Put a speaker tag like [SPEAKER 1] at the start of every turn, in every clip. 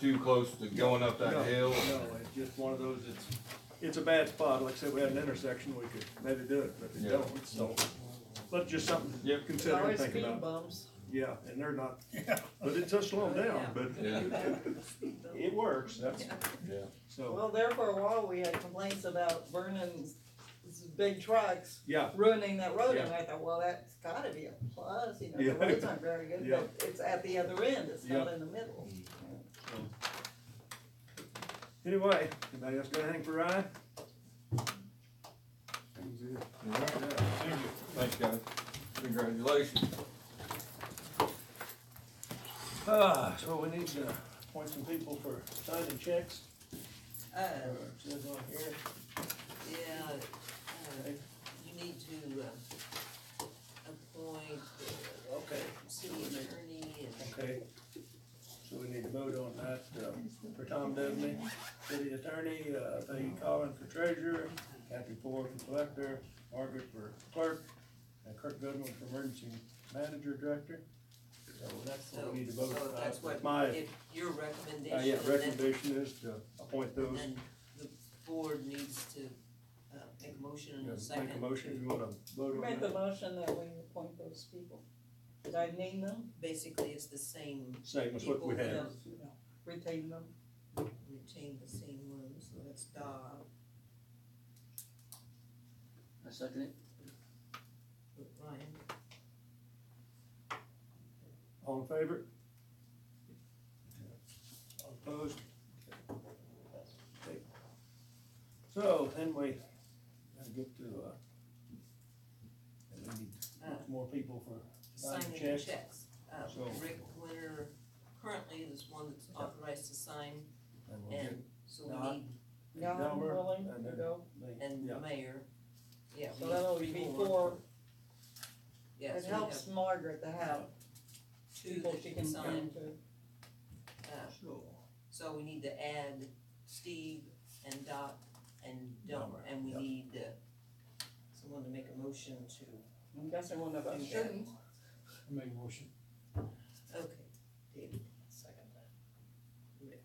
[SPEAKER 1] too close to going up that
[SPEAKER 2] No,
[SPEAKER 1] hill.
[SPEAKER 2] No, it's just one of those, it's, it's a bad spot, like I said, we had an intersection, we could maybe do it, but they
[SPEAKER 1] Yeah.
[SPEAKER 2] don't, so. But just something to
[SPEAKER 1] Yep.
[SPEAKER 2] consider and
[SPEAKER 3] Always
[SPEAKER 2] think
[SPEAKER 3] speed
[SPEAKER 2] about,
[SPEAKER 3] bumps.
[SPEAKER 2] yeah, and they're not, but it does slow them down, but
[SPEAKER 1] Yeah,
[SPEAKER 2] it works, that's,
[SPEAKER 1] yeah.
[SPEAKER 2] so,
[SPEAKER 3] Well, there for a while, we had complaints about Vernon's s- big trucks
[SPEAKER 2] yeah,
[SPEAKER 3] ruining that road, and
[SPEAKER 2] Yeah.
[SPEAKER 3] I thought, well, that's gotta be a plus, you know,
[SPEAKER 2] Yeah.
[SPEAKER 3] the roads aren't very good,
[SPEAKER 2] Yeah.
[SPEAKER 3] but it's at the other end, it's not
[SPEAKER 2] Yeah.
[SPEAKER 3] in the middle.
[SPEAKER 2] anyway, anybody else got anything for Ryan?
[SPEAKER 1] Thanks, guys. Congratulations.
[SPEAKER 2] Ah, so we need to appoint some people for signing checks,
[SPEAKER 4] Uh,
[SPEAKER 2] or it says on here,
[SPEAKER 4] yeah, uh, you need to, uh, appoint the
[SPEAKER 2] okay,
[SPEAKER 4] city attorney and,
[SPEAKER 2] okay. So we need to vote on that, uh, for Tom Dudley, city attorney, uh, Peggy Collins for treasurer, Kathy Ford for collector, Margaret for clerk, and Kirk Goodwin for emergency manager director. So that's
[SPEAKER 4] so,
[SPEAKER 2] what we need to vote
[SPEAKER 4] so
[SPEAKER 2] on.
[SPEAKER 4] that's what,
[SPEAKER 2] My,
[SPEAKER 4] if your
[SPEAKER 2] uh, yeah,
[SPEAKER 4] recommendation, then,
[SPEAKER 2] recommendation is to appoint those,
[SPEAKER 4] then the board needs to, uh, make a motion in a
[SPEAKER 2] Yeah,
[SPEAKER 4] second.
[SPEAKER 2] make a motion, if you wanna vote on that.
[SPEAKER 3] Make the motion that we appoint those people. Did I name them?
[SPEAKER 4] Basically, it's the same,
[SPEAKER 2] Same as what we
[SPEAKER 4] People,
[SPEAKER 2] had.
[SPEAKER 4] yeah.
[SPEAKER 3] Retain them?
[SPEAKER 4] retain the same one, so that's Dob,
[SPEAKER 5] I second it.
[SPEAKER 4] Ryan,
[SPEAKER 2] All in favor? All Opposed? Okay. So then we gotta get to, uh, we need more people for, Sign
[SPEAKER 4] signing
[SPEAKER 2] checks.
[SPEAKER 4] checks. Uh,
[SPEAKER 2] So-
[SPEAKER 4] Rick Winter currently is one that's authorized to sign,
[SPEAKER 2] and we'll get
[SPEAKER 4] and so we
[SPEAKER 2] Dob.
[SPEAKER 4] need,
[SPEAKER 3] No, I'm
[SPEAKER 2] Delmer,
[SPEAKER 3] willing
[SPEAKER 2] and
[SPEAKER 3] to
[SPEAKER 2] then-
[SPEAKER 3] go.
[SPEAKER 2] the-
[SPEAKER 4] and the
[SPEAKER 2] yeah,
[SPEAKER 4] mayor. Yeah, we
[SPEAKER 3] So that'll
[SPEAKER 4] need
[SPEAKER 3] be
[SPEAKER 4] three more.
[SPEAKER 3] four.
[SPEAKER 4] Yes,
[SPEAKER 3] It
[SPEAKER 4] we have
[SPEAKER 3] helps Margaret to have
[SPEAKER 4] two
[SPEAKER 3] people
[SPEAKER 4] that
[SPEAKER 3] she
[SPEAKER 4] you
[SPEAKER 3] can
[SPEAKER 4] can
[SPEAKER 3] sign
[SPEAKER 4] sign,
[SPEAKER 3] to.
[SPEAKER 4] uh,
[SPEAKER 2] So,
[SPEAKER 4] so we need to add Steve and Doc and Delmer, and we
[SPEAKER 2] Yep.
[SPEAKER 4] need, uh, someone to make a motion to,
[SPEAKER 3] I'm guessing one of us
[SPEAKER 4] Yeah.
[SPEAKER 3] shouldn't.
[SPEAKER 6] Make a motion.
[SPEAKER 4] okay, David, second that. Rick.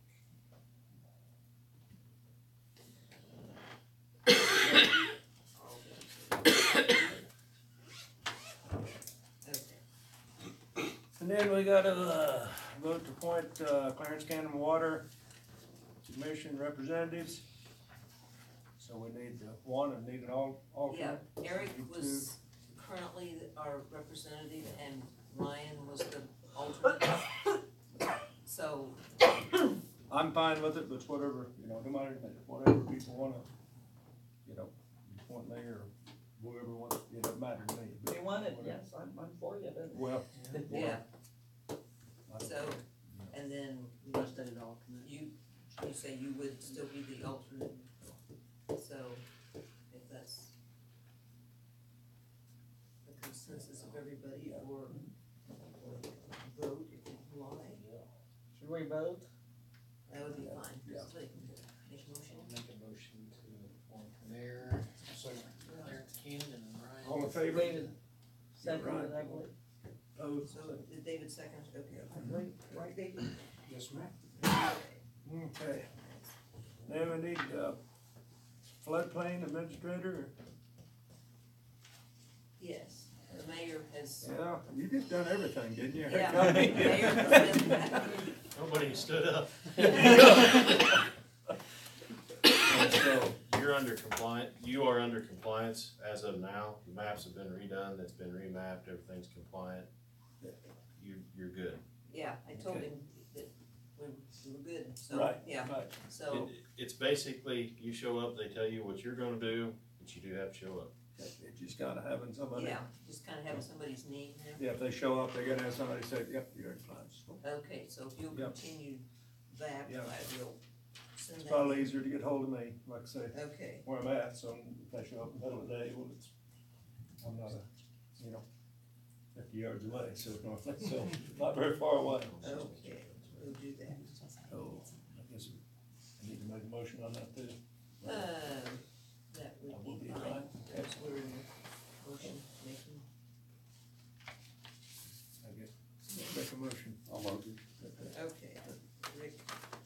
[SPEAKER 4] All done. Okay.
[SPEAKER 2] And then we gotta, uh, vote to appoint, uh, Clarence Cannon Water Commission representatives. So we need the one and need an al-
[SPEAKER 4] Yeah,
[SPEAKER 2] alternate.
[SPEAKER 4] Eric
[SPEAKER 2] You
[SPEAKER 4] was currently our representative and Ryan was the alternate. So,
[SPEAKER 2] I'm fine with it, but it's whatever, you know, no matter, whatever people wanna, you know, point mayor or whoever wants, it doesn't matter to me. but
[SPEAKER 3] We want it,
[SPEAKER 2] whatever.
[SPEAKER 3] yes, I'm, I'm for you, but
[SPEAKER 2] Well.
[SPEAKER 4] yeah,
[SPEAKER 2] I don't
[SPEAKER 4] so,
[SPEAKER 2] care.
[SPEAKER 4] and then
[SPEAKER 5] I said it all.
[SPEAKER 4] you, you say you would still be the alternate. So, if that's the consensus of everybody or vote if you like,
[SPEAKER 3] should we vote?
[SPEAKER 4] that would be fine.
[SPEAKER 2] Yeah.
[SPEAKER 4] Just like, Make a motion.
[SPEAKER 6] I'll make a motion to appoint Mayor, sorry, Mayor Cannon and Ryan.
[SPEAKER 2] All in favor?
[SPEAKER 3] David, second,
[SPEAKER 2] Right.
[SPEAKER 3] I believe.
[SPEAKER 2] Opposed?
[SPEAKER 4] So, did David second? Okay.
[SPEAKER 3] I believe, right, David?
[SPEAKER 2] Yes, ma'am. Okay. Then we need, uh, floodplain administrator,
[SPEAKER 4] Yes, the mayor has,
[SPEAKER 2] yeah, you just done everything, didn't you?
[SPEAKER 4] yeah, the mayor has been,
[SPEAKER 7] Nobody stood up.
[SPEAKER 2] And so,
[SPEAKER 7] You're under compliant, you are under compliance as of now. The maps have been redone, it's been remapped, everything's compliant. You, you're good.
[SPEAKER 4] yeah, I told him that we we were good, so,
[SPEAKER 2] Right.
[SPEAKER 4] yeah,
[SPEAKER 2] right,
[SPEAKER 4] so,
[SPEAKER 7] It- It's basically, you show up, they tell you what you're gonna do, but you do have to show up.
[SPEAKER 2] It's just kinda having somebody,
[SPEAKER 4] yeah, just kinda having somebody's name there.
[SPEAKER 2] yeah, if they show up, they gotta have somebody say, yep, you're in compliance.
[SPEAKER 4] Okay, so if you'll
[SPEAKER 2] Yeah.
[SPEAKER 4] continue that,
[SPEAKER 2] Yeah.
[SPEAKER 4] I will send
[SPEAKER 2] It's
[SPEAKER 4] that.
[SPEAKER 2] probably easier to get hold of me, like I say,
[SPEAKER 4] Okay,
[SPEAKER 2] where I'm at, so if I show up in the middle of the day, well, it's, I'm not a, you know, fifty yards away, so, it's not- so, not very far away.
[SPEAKER 4] Oh, okay, we'll do that.
[SPEAKER 2] So, I guess I need to make a motion on that too.
[SPEAKER 4] Uh,